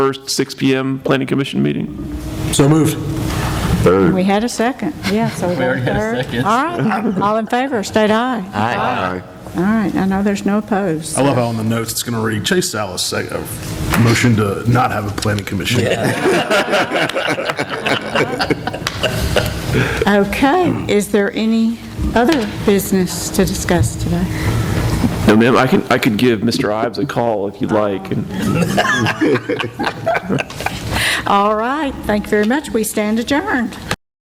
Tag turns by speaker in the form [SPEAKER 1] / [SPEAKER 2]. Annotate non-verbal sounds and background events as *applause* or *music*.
[SPEAKER 1] 1st, 6 PM Planning Commission meeting.
[SPEAKER 2] So moved.
[SPEAKER 3] We had a second, yeah, so we got a third. All right, *laughs* all in favor, state aye. Aye. All right, I know there's no opposed.
[SPEAKER 4] I love how on the notes it's going to read Chase Salas, sec- uh, motion to not have a planning commission.
[SPEAKER 3] Okay, is there any other business to discuss today?
[SPEAKER 1] No, ma'am, I can, I could give Mr. Ives a call if you'd like. and-
[SPEAKER 3] All right, thank you very much, we stand adjourned.